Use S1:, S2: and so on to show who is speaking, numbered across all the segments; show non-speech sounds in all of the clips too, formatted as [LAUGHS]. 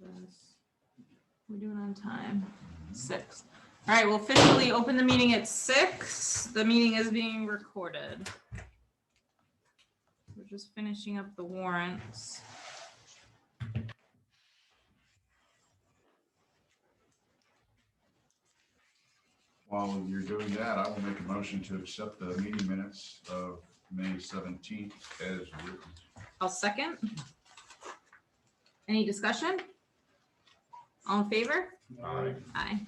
S1: this. We're doing on time. Six. All right, we'll officially open the meeting at six. The meeting is being recorded. We're just finishing up the warrants.
S2: While you're doing that, I will make a motion to accept the meeting minutes of May seventeenth as written.
S1: I'll second. Any discussion? All in favor?
S2: Aye.
S1: Aye.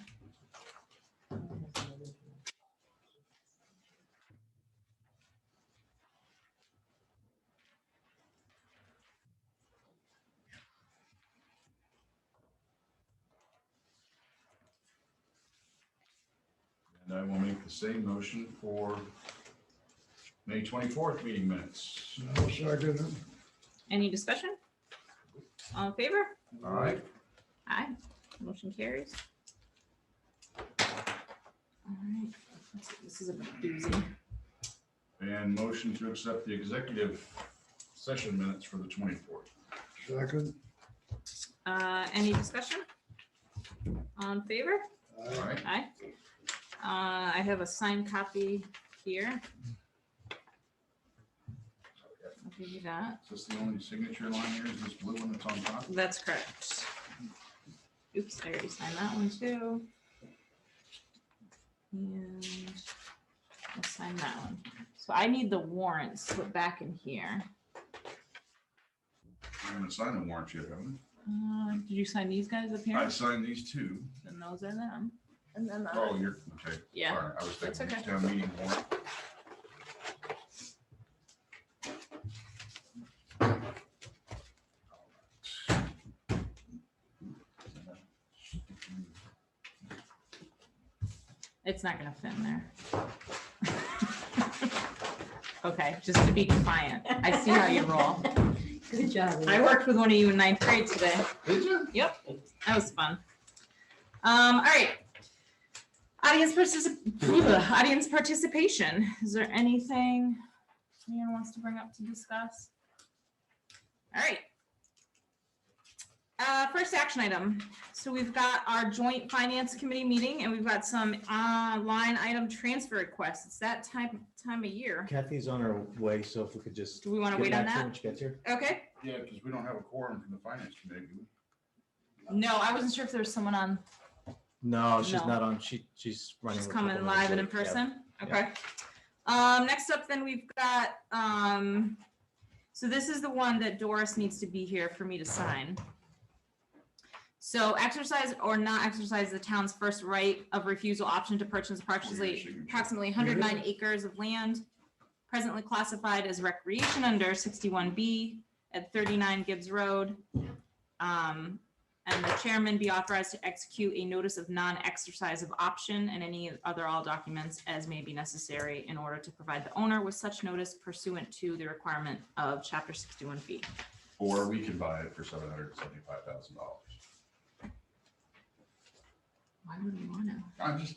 S2: And I will make the same motion for May twenty-fourth meeting minutes.
S3: I'll second it.
S1: Any discussion? All in favor?
S2: All right,
S1: Aye, motion carries. All right, That's- this is a doozy.
S2: and motion to accept the executive session minutes for the twenty-fourth.
S3: Second.
S1: Uh, any discussion? All in favor?
S2: All right,
S1: Aye. Uh, I have a signed copy here. I'll give you that.
S2: is this the only signature line here? Is this blue one that's on top?
S1: That's correct. Oops, I already signed that one too. And I'll sign that one. So I need the warrants put back in here.
S2: I haven't signed the warrant yet, haven't
S1: Uh, Did you sign these guys up
S2: I? I
S1: here?
S2: signed these two.
S1: And those are them. And then, the-
S2: Oh, you're, okay.
S1: yeah,
S2: Sorry, I was
S1: That's
S2: thinking
S1: okay.
S2: town meeting warrant.
S1: it's not gonna fit in there. [LAUGHS] Okay, just to be defiant. I see how you roll.
S4: Good job.
S1: I worked with one of you in ninth grade today.
S2: Did you?
S1: That was fun. Um, all right. Audience particip, audience participation. Is there anything anyone wants to bring up to discuss? All right. Uh, first action item. So we've got our joint finance committee meeting and we've got some, uh, line item transfer requests. It's that time, time of year.
S5: Kathy's on her way, so if we could just.
S1: Do we want to
S5: get
S1: wait on
S5: back to her
S1: that?
S5: When she gets here.
S1: Okay.
S2: Yeah, because we don't have a quorum from the finance committee. do we?
S1: No, I wasn't sure if there was someone on
S5: No, she's
S1: No.
S5: not on. She, she's running.
S1: Just
S5: a couple
S1: coming
S5: minutes
S1: live and in
S5: late. Yeah.
S1: person?
S5: Yeah.
S1: Okay. Um, next up then we've got, um, so this is the one that Doris needs to be here for me to sign. So exercise or not exercise the town's first right of refusal option to purchase approximately, approximately hundred nine acres of land presently classified as recreation under sixty-one B at thirty-nine Gibbs Road. Um, and the chairman be authorized to execute a notice of non-exercise of option and any other all documents as may be necessary in order to provide the owner with such notice pursuant to the requirement of chapter sixty-one B.
S2: Or we can buy it for seven hundred and seventy-five thousand dollars.
S1: Why would we wanna?
S2: I'm just,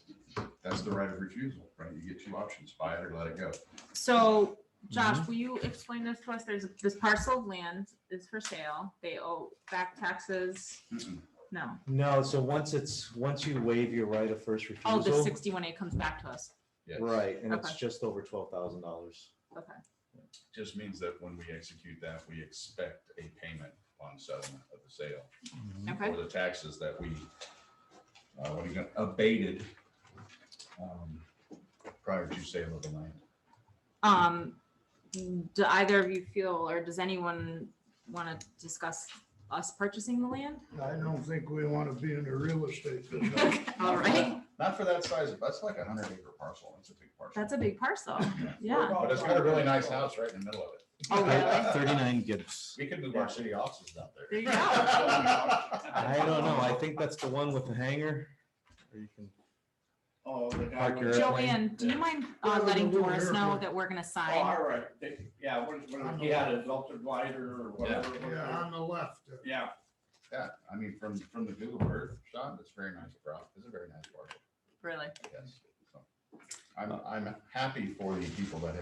S2: that's the right of refusal, right? You get two options, buy it or let it go.
S1: So Josh, will you explain this to us? There's, this parcel of land is for sale. They owe back taxes.
S2: Mm-mm.
S1: No.
S5: No, so once it's, once you waive your right of first
S1: Oh, the
S5: refusal,
S1: sixty-one A comes back to us.
S2: Yeah,
S5: right, and it's
S1: Okay.
S5: just over twelve thousand dollars.
S1: Okay.
S2: Just means that when we execute that, we expect a payment on settlement of the sale
S1: Okay.
S2: or the taxes that we, uh, what do you got, abated um, prior to sale of the land.
S1: Um, do either of you feel, or does anyone want to discuss us purchasing the land? [LAUGHS]
S3: I don't think we want to be in the real estate business.
S1: All right,
S2: Not for that size, that's like a hundred acre parcel. That's a big parcel.
S1: that's a big parcel. Yeah.
S2: But it's got a really nice house right in the middle of it.
S1: Oh, really?
S5: Thirty-nine Gibbs.
S2: We could move our city offices out there.
S1: There
S2: [LAUGHS]
S1: you go.
S5: I don't know. I think that's the one with the hangar. Or you can,
S6: Oh, the guy.
S5: Park
S6: went-
S5: your-
S1: Joanne, do you mind uh, letting
S3: Yeah.
S1: Doris know that we're gonna
S6: Oh,
S1: sign?
S6: all right, They- yeah, when, when he had his altered lighter or whatever.
S3: Yeah, on the left. uh,
S6: Yeah,
S2: Yeah, I mean, from, from the Google Earth shot, it's very nice, bro. It's a very nice park,
S1: Really?
S2: I guess. So, I'm, I'm happy for the people that have